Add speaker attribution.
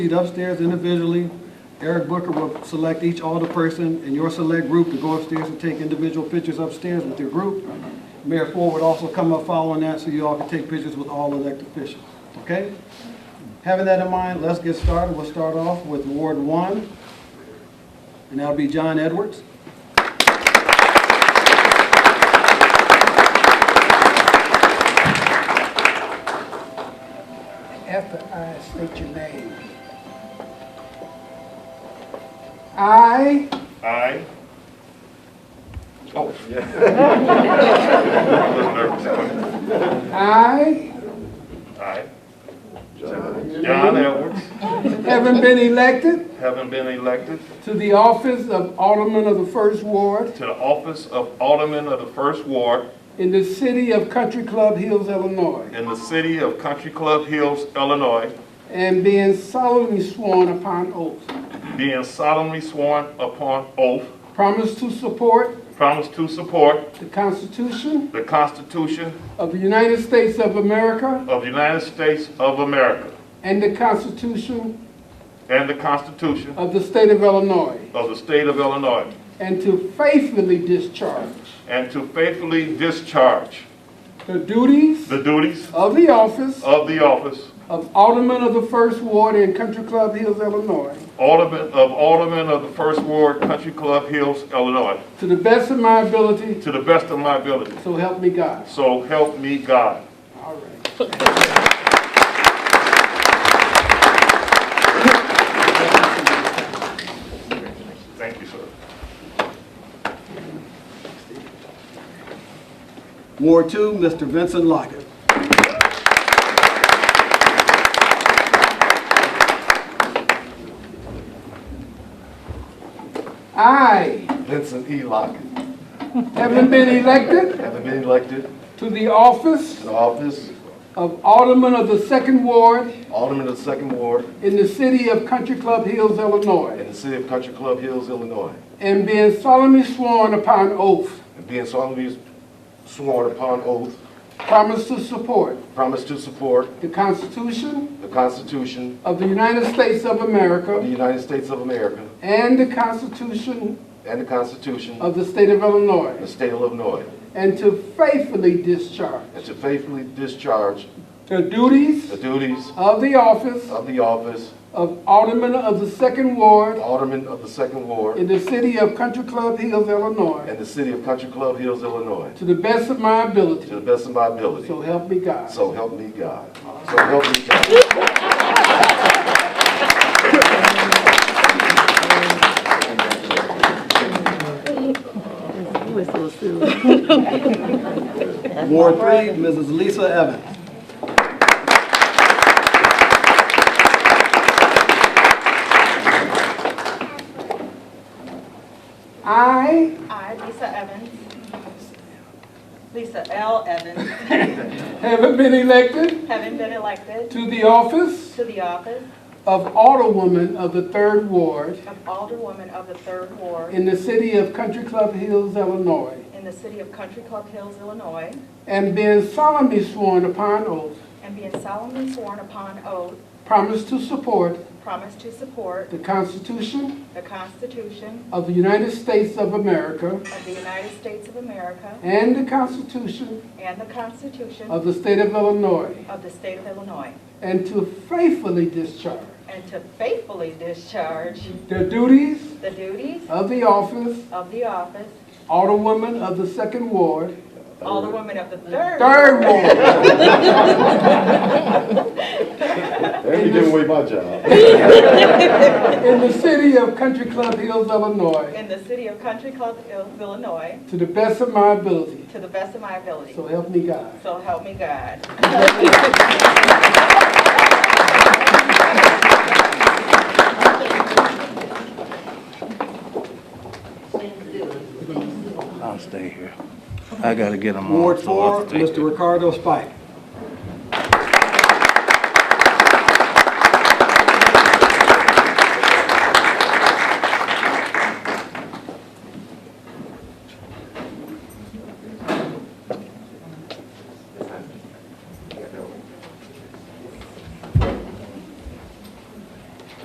Speaker 1: proceed upstairs individually. Eric Booker will select each alder person in your select group to go upstairs and take individual pictures upstairs with your group. Mayor Ford would also come up following that so you all can take pictures with all elected officials, okay? Having that in mind, let's get started. We'll start off with Ward One, and that'll be John Edwards.
Speaker 2: After I state your name. I,
Speaker 3: I. Oh, yeah.
Speaker 2: I
Speaker 3: I. John Edwards,
Speaker 2: haven't been elected
Speaker 3: having been elected
Speaker 2: to the office of Alderman of the First Ward
Speaker 3: to the office of Alderman of the First Ward
Speaker 2: in the city of Country Club Hills, Illinois,
Speaker 3: in the city of Country Club Hills, Illinois,
Speaker 2: and being solemnly sworn upon oath,
Speaker 3: being solemnly sworn upon oath,
Speaker 2: promise to support
Speaker 3: promise to support
Speaker 2: the Constitution
Speaker 3: the Constitution
Speaker 2: of the United States of America
Speaker 3: of the United States of America
Speaker 2: and the Constitution
Speaker 3: and the Constitution
Speaker 2: of the State of Illinois,
Speaker 3: of the State of Illinois,
Speaker 2: and to faithfully discharge
Speaker 3: and to faithfully discharge
Speaker 2: the duties
Speaker 3: the duties
Speaker 2: of the office
Speaker 3: of the office
Speaker 2: of Alderman of the First Ward in Country Club Hills, Illinois,
Speaker 3: Alderman, of Alderman of the First Ward, Country Club Hills, Illinois,
Speaker 2: to the best of my ability,
Speaker 3: to the best of my ability.
Speaker 2: so help me God.
Speaker 3: So help me God.
Speaker 2: All right.
Speaker 3: Thank you, sir.
Speaker 1: Ward Two, Mr. Vincent Lockett.
Speaker 2: I,
Speaker 4: Vincent E. Lockett,
Speaker 2: having been elected
Speaker 4: having been elected
Speaker 2: to the office
Speaker 4: to the office
Speaker 2: of Alderman of the Second Ward
Speaker 4: Alderman of the Second Ward
Speaker 2: in the city of Country Club Hills, Illinois,
Speaker 4: in the city of Country Club Hills, Illinois,
Speaker 2: and being solemnly sworn upon oath,
Speaker 4: and being solemnly sworn upon oath,
Speaker 2: promise to support
Speaker 4: promise to support
Speaker 2: the Constitution
Speaker 4: the Constitution
Speaker 2: of the United States of
Speaker 4: of the
Speaker 2: America
Speaker 4: United States of America
Speaker 2: and the Constitution
Speaker 4: and the Constitution of
Speaker 2: of the State of Illinois,
Speaker 4: the State of Illinois,
Speaker 2: and to faithfully discharge
Speaker 4: and to faithfully discharge
Speaker 2: the duties
Speaker 4: the duties
Speaker 2: of the office
Speaker 4: of the office
Speaker 2: of Alderman of the Second Ward
Speaker 4: Alderman of the Second Ward
Speaker 2: in the city of Country Club Hills, Illinois,
Speaker 4: in the city of Country Club Hills, Illinois,
Speaker 2: to the best of my
Speaker 4: to
Speaker 2: ability,
Speaker 4: the best of my ability.
Speaker 2: so help me God.
Speaker 4: So help me God. So help me God.
Speaker 1: Ward Three, Mrs. Lisa Evans.
Speaker 2: I
Speaker 5: I, Lisa Evans. Lisa L. Evans,
Speaker 2: haven't been elected
Speaker 5: having been elected
Speaker 2: to the office
Speaker 5: to the office
Speaker 2: of Alderwoman of the Third Ward
Speaker 5: of Alderwoman of the Third Ward
Speaker 2: in the city of Country Club Hills, Illinois,
Speaker 5: in the city of Country Club Hills, Illinois,
Speaker 2: and being solemnly sworn upon oath,
Speaker 5: and being solemnly sworn upon oath,
Speaker 2: promise to support
Speaker 5: promise to support
Speaker 2: the Constitution
Speaker 5: the Constitution
Speaker 2: of the United States of America
Speaker 5: of the United States of America
Speaker 2: and the Constitution
Speaker 5: and the Constitution
Speaker 2: of the State of Illinois,
Speaker 5: of the State of Illinois,
Speaker 2: And to faithfully discharge
Speaker 5: and to faithfully discharge
Speaker 2: the duties
Speaker 5: the duties
Speaker 2: of the office,
Speaker 5: of the office,
Speaker 2: Alderwoman of the Second Ward,
Speaker 5: Alderwoman of the Third.
Speaker 2: Third Ward,
Speaker 4: And you giving away my job.
Speaker 2: in the city of Country Club Hills, Illinois,
Speaker 5: In the city of Country Club Hills, Illinois,
Speaker 2: to the best of my ability.
Speaker 5: To the best of my ability.
Speaker 2: So help me God.
Speaker 5: So help me God.
Speaker 6: I'll stay here. I gotta get them off.
Speaker 1: Ward
Speaker 6: so I'll
Speaker 1: Four,
Speaker 6: stay here.
Speaker 1: Mr. Ricardo Spike.